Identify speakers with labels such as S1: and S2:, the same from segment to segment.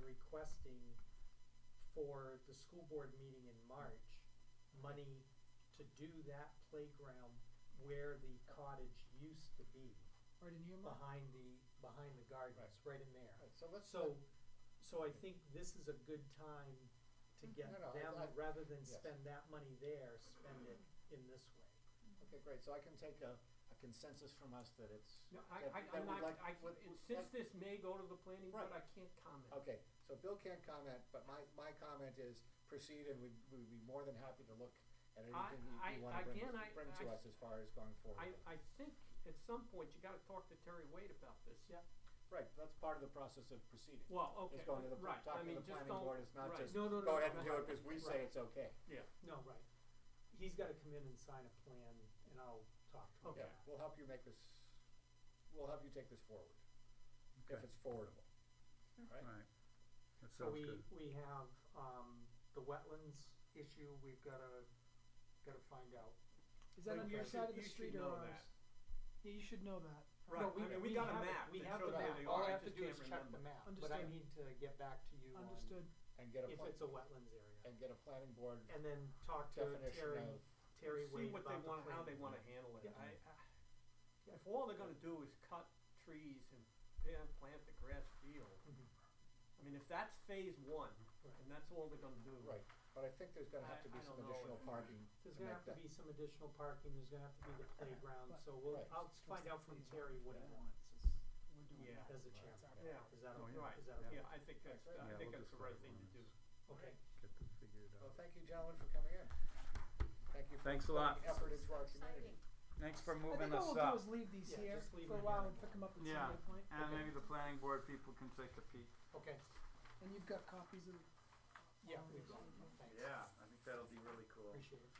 S1: requesting for the school board meeting in March, money to do that playground where the cottage used to be,
S2: Right in here, Mark?
S1: behind the, behind the gardens, right in there.
S2: Right, so let's,
S1: So, so I think this is a good time to get
S2: Mm, No, no, I-
S1: them,
S2: I-
S1: rather than
S2: yes.
S1: spend that money there, spend it in this way.
S2: okay, great, so I can take a, a consensus from us that it's.
S3: No, I,
S2: that-
S3: I,
S2: that
S3: I'm
S2: we'd
S3: not,
S2: like-
S3: I,
S2: would- would
S3: since
S2: like-
S3: this may go to the planning board, I
S2: Right.
S3: can't comment.
S2: Okay, so Bill can't comment, but my, my comment is proceed and we'd, we'd be more than happy to look at
S3: I-
S2: anything
S3: I-
S2: you, you wanna bring,
S3: again, I-
S2: bring to
S3: I-
S2: us as far as going forward.
S3: I, I think at some point you gotta talk to Terry Wade about this.
S1: Yep.
S2: Right, that's part of the process of proceeding.
S3: Well, okay,
S2: It's going to the,
S3: right, I
S2: talking
S3: mean,
S2: to the
S3: just don't, right.
S2: planning board, it's not just,
S3: No, no, no,
S2: go ahead and
S3: no,
S2: do it because we
S3: right.
S2: say it's okay.
S3: Yeah,
S1: No, right. He's gotta come in and sign a plan and I'll talk to him.
S3: Okay.
S2: Yeah, we'll help you make this, we'll help you take this forward, if
S4: Okay.
S2: it's forwardable, right?
S4: Alright, that
S1: So
S4: sounds
S1: we,
S4: good.
S1: we have, um, the wetlands issue, we've gotta, gotta find out.
S5: Is that
S3: Like,
S5: on
S3: you
S5: your
S3: should-
S5: side of the
S3: you should
S5: street or
S3: know
S5: ours?
S3: that.
S5: Yeah, you should know that.
S3: Right,
S1: No,
S3: I mean, we got a
S1: have it-
S3: map
S1: We
S3: that
S1: have the
S3: shows where
S1: map,
S3: they
S1: all
S3: are,
S1: I
S3: I
S1: have to
S3: just
S1: do
S3: can't
S1: is check the
S3: remember.
S1: map, but I
S5: Understood.
S1: need to get back to you on
S5: Understood.
S2: And get a,
S1: if
S2: pla-
S1: it's a wetlands area.
S2: and get a planning board
S1: And then talk to
S2: definition
S1: Terry,
S2: of,
S1: Terry
S3: see
S1: Wade
S3: what they
S1: about the
S3: wanna, how they
S1: plan.
S3: wanna handle it,
S1: Yeah.
S3: I, I, if all they're gonna do is cut trees and plant, plant the grass field,
S1: Mhm.
S3: I mean, if that's phase one,
S1: Right.
S3: and that's all they're gonna do.
S2: right, but I think there's gonna have
S3: I-
S2: to be
S3: I
S2: some
S3: don't know
S2: additional
S3: if-
S2: parking to
S1: There's
S2: make that.
S1: gonna have to be some additional parking, there's gonna have to be the playground,
S5: But-
S1: so we'll,
S2: Right.
S1: I'll find out from Terry what he
S2: Yeah.
S1: wants as,
S5: We're doing
S3: Yeah.
S5: that.
S1: as a chairman.
S5: That's our-
S3: Yeah,
S1: Is that,
S4: Oh,
S1: okay?
S3: right,
S1: is that, okay?
S3: yeah, I think that's,
S2: Yeah,
S3: I
S4: we'll
S3: think that's the
S4: just
S3: right
S4: go
S3: thing
S4: on.
S3: to do.
S1: okay,
S4: Get this figured
S2: Well,
S4: out.
S2: thank you gentlemen for coming in. Thank you for
S4: Thanks a
S2: putting
S4: lot.
S2: effort into our community.
S6: Exciting.
S4: Thanks for
S5: I
S4: moving
S5: think
S4: us
S5: what we'll do
S4: up.
S5: is leave these
S1: Yeah,
S5: here
S1: just leave
S5: for a
S1: them
S5: while
S1: here.
S5: and pick them up at
S4: Yeah.
S5: some other point.
S4: And maybe the planning board people can take a peek.
S1: okay,
S5: And you've got copies of.
S1: yeah, we've got it. thanks,
S4: Yeah, I think that'll be really cool.
S1: appreciate it.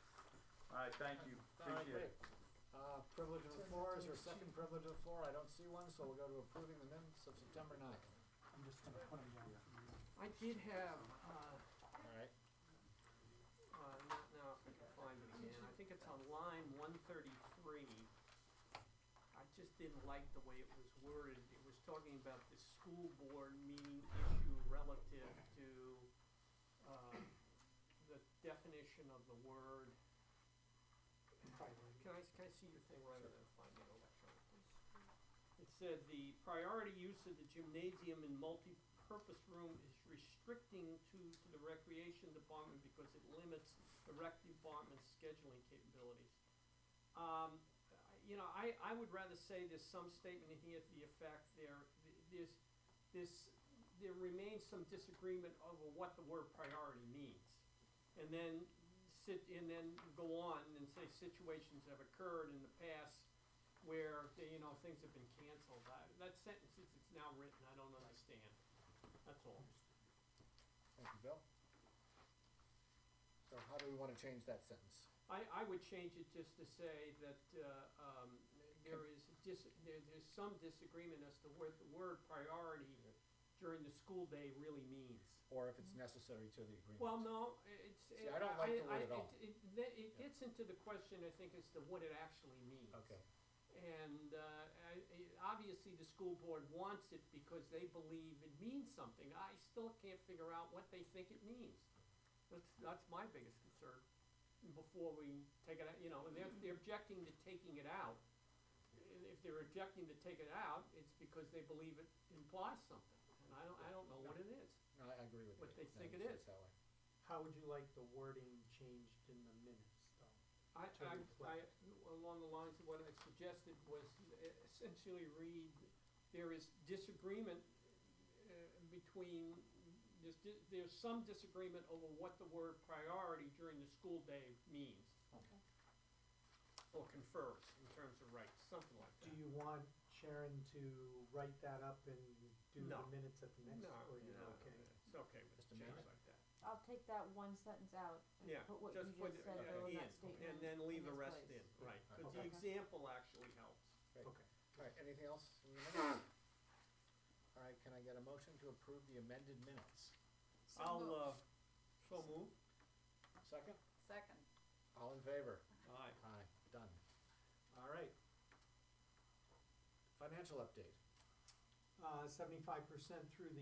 S4: Alright, thank you,
S2: All right,
S4: appreciate it.
S2: great. Uh, privilege of the floor, is there a second privilege of the floor? I don't see one, so we'll go to approving the minutes of September ninth.
S5: I'm just gonna put them down.
S3: I did have, uh,
S2: All right.
S3: Uh, not now, if I can find it again, I think it's on line one thirty-three. I just didn't like the way it was worded, it was talking about the school board meeting issue relative to, uh, the definition of the word. Can I, can I see your thing rather than find it electronically? It said the priority use of the gymnasium and multipurpose room is restricting to, to the recreation department because it limits the rec department's scheduling capabilities. Um, I- you know, I, I would rather say there's some statement in here to the effect there, there's, this, there remains some disagreement over what the word priority means. And then sit, and then go on and say situations have occurred in the past where, they- you know, things have been canceled. I- That sentence, it's, it's now written, I don't understand. That's all.
S2: Thank you, Bill. So how do we wanna change that sentence?
S3: I, I would change it just to say that, uh, um, there is dis, there, there's some disagreement as to what the word priority during the school day really means.
S2: Or if it's necessary to the agreement?
S3: Well, no, it's,
S2: See, I don't like the word
S3: I- I-
S2: at all.
S3: it- It, that- it gets into the question, I think, as to what it actually means.
S2: Okay,
S3: And, uh, I, I- obviously, the school board wants it because they believe it means something. I still can't figure out what they think it means. That's, that's my biggest concern, before we take it out, you know, and they're, they're objecting to taking it out. And if they're objecting to take it out, it's because they believe it implies something, and I don't, I don't know what it is.
S2: no, I I agree with you.
S3: What they
S2: No,
S3: think it
S2: it's-
S3: is.
S2: it's that way.
S1: How would you like the wording changed in the minutes, though?
S3: I,
S1: to
S3: I, I,
S1: reflect.
S3: along the lines of what I suggested was essentially read, there is disagreement uh, between, there's, di- there's some disagreement over what the word priority during the school day means.
S6: Okay.
S3: Or confers in terms of rights, something like that.
S1: Do you want Sharon to write that up and do the
S3: No.
S1: minutes at the next,
S3: No,
S1: or you
S3: no,
S1: okay?
S3: It's okay with
S2: Just
S3: things
S2: amend
S3: like
S2: it.
S3: that.
S6: I'll take that one sentence out
S3: Yeah,
S6: and put what you
S3: just put
S6: just
S3: it
S6: said though
S3: in,
S6: in that statement.
S3: and then leave
S6: in
S3: the
S6: its
S3: rest
S6: place.
S3: in, right, because the
S1: Okay.
S3: example actually helps.
S2: Great.
S1: Okay.
S2: All right, anything else in the minutes? All right, can I get a motion to approve the amended minutes?
S3: I'll, uh, so move.
S2: Second?
S6: Second.
S2: All in favor?
S3: Aye.
S2: Aye, done. All right. Financial update.
S1: Uh, seventy-five percent through the